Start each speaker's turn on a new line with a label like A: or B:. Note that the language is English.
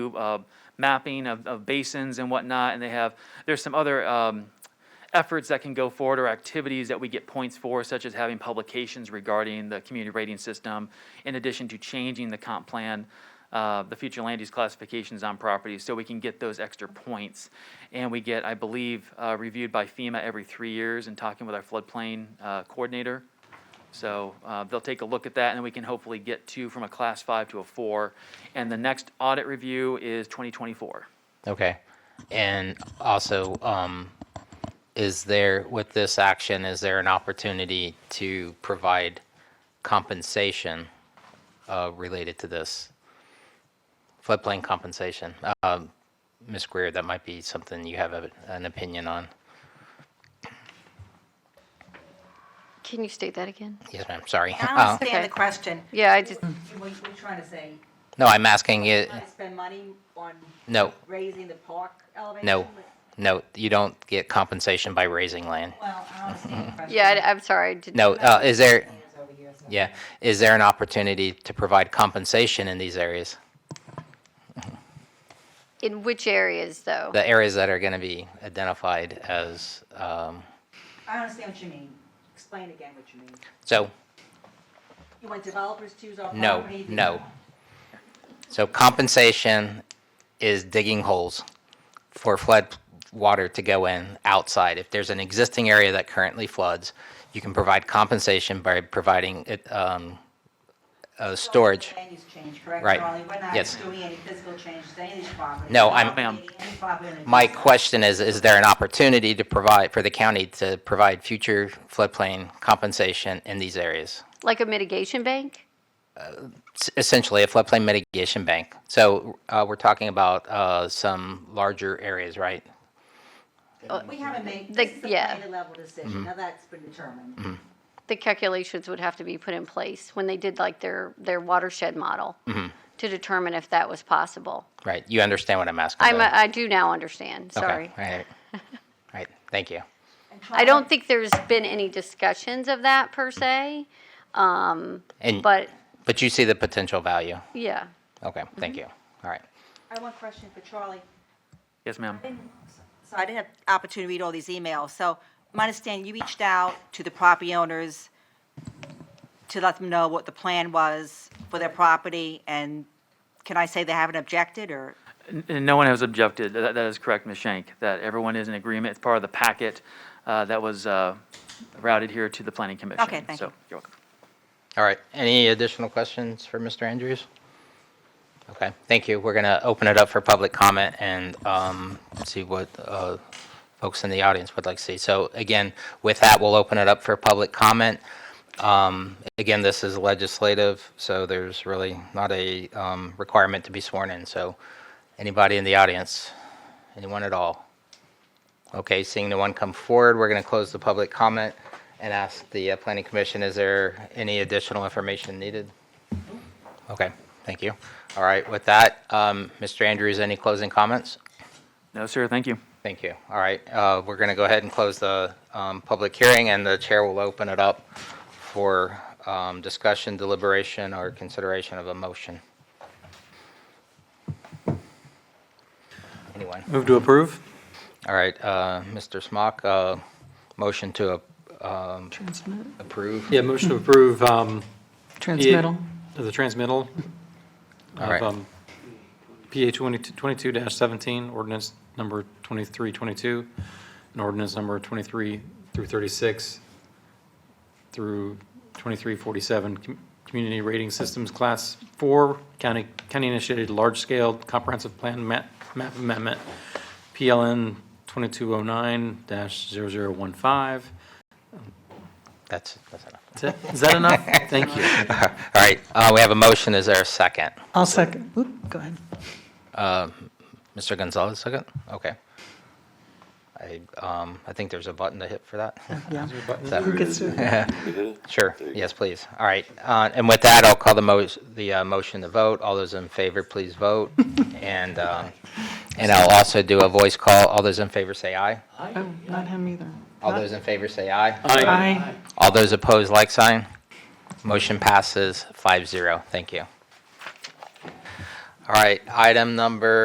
A: uh, mapping of, of basins and whatnot, and they have, there's some other um, efforts that can go forward or activities that we get points for, such as having publications regarding the community rating system, in addition to changing the comp plan, uh, the future land use classifications on properties, so we can get those extra points. And we get, I believe, uh, reviewed by FEMA every three years and talking with our floodplain uh, coordinator. So uh, they'll take a look at that, and then we can hopefully get to, from a class five to a four. And the next audit review is 2024.
B: Okay. And also, um, is there, with this action, is there an opportunity to provide compensation uh, related to this? Floodplain compensation. Um, Ms. Greer, that might be something you have a- an opinion on.
C: Can you state that again?
B: Yes, ma'am, sorry.
D: I
B: Uh,
D: understand the
C: Okay.
D: question.
C: Yeah, I just,
D: What you trying to say,
B: No, I'm asking it,
D: trying to spend money on
B: no,
D: raising the park elevation?
B: no, no, you don't get compensation by raising land.
D: Well, I understand the question.
C: yeah, I- I'm sorry. I didn't-
B: No, uh, is there,
D: It's over here, so-
B: yeah, is there an opportunity to provide compensation in these areas?
C: In which areas, though?
B: the areas that are going to be identified as, um,
D: I understand what you mean. Explain again what you mean.
B: so,
D: You want developers to use our
B: no,
D: property? they-
B: no. So compensation is digging holes for flood water to go in outside. If there's an existing area that currently floods, you can provide compensation by providing it, um, uh, storage.
D: Land use change, correct,
B: Right.
D: Charlie? We're not
B: Yes.
D: doing any physical changes to any of these properties.
B: No,
D: We're
B: I'm-
D: not
A: Ma'am.
D: creating any property under
B: My
D: this.
B: question is, is there an opportunity to provide, for the county to provide future floodplain compensation in these areas?
C: Like a mitigation bank?
B: s- essentially a floodplain mitigation bank. So uh, we're talking about uh, some larger areas, right?
D: We haven't made,
C: The-
D: this is a
C: yeah.
D: planning level
B: Mm-hmm.
D: decision. Now that's been determined.
C: The calculations would have to be put in place when they did like their, their watershed model
B: Mm-hmm.
C: to determine if that was possible.
B: Right. You understand what I'm asking.
C: I'm,
B: though.
C: I do now understand,
B: Okay,
C: sorry.
B: All right. All right. Thank you.
D: And
C: I
D: Charlie,
C: don't think there's been any discussions of that per se,
B: And
C: but
B: but you see the potential value.
C: yeah.
B: Okay.
C: Mm-hmm.
B: Thank you. All right.
D: I have one question for Charlie.
A: Yes, ma'am?
D: So I didn't have opportunity to read all these emails. So my understanding, you reached out to the property owners to let them know what the plan was for their property, and can I say they haven't objected, or?
A: And no one has objected. That, that is correct, Ms. Shank, that everyone is in agreement. It's part of the packet uh, that was uh, routed here to the planning commission.
D: Okay, thank
A: So,
D: you.
A: you're welcome.
B: All right. Any additional questions for Mr. Andrews? Okay. Thank you. We're gonna open it up for public comment and um, see what uh, folks in the audience would like to see. So again, with that, we'll open it up for public comment. Um, Again, this is legislative, so there's really not a um, requirement to be sworn in. So anybody in the audience, anyone at all? Okay, seeing no one come forward, we're going to close the public comment and ask the uh, planning commission, is there any additional information needed? Okay, thank you. All right, with that, um, Mr. Andrews, any closing comments?
A: No, sir, thank you.
B: Thank you. All right, uh, we're going to go ahead and close the um, public hearing, and the chair will open it up for um, discussion, deliberation, or consideration of a motion. Anyone?
E: Move to approve?
B: All right, uh, Mr. Smock, uh, motion to um,
F: Transmit,
B: approve.
E: Yeah, motion to approve. um, PA
F: transmittal.
E: The transmittal
B: All right.
E: of um, PA 22-17, ordinance number 2322, and ordinance number 23 through 36 through 2347, com- community rating systems, class four, county, county-initiated, large-scale comprehensive plan map map amendment, PLN 2209-0015.
B: That's, that's enough.
E: Is that- Is that enough? Thank you.
B: All right, uh, we have a motion. Is there a second?
F: I'll second. Oop, go ahead.
B: Mr. Gonzalez, second? Okay. I, um, I think there's a button to hit for that.
F: Yeah.
B: Is that-
F: Who gets to?
B: Sure, yes, please. All right, uh, and with that, I'll call the mo, the uh, motion to vote. All those in favor, please vote. And, um, and I'll also do a voice call. All those in favor say aye.
F: Oh, not him either.
B: All those in favor say aye.
F: Aye.
B: All those opposed, like sign. Motion passes 5-0. Thank you. All All right, item number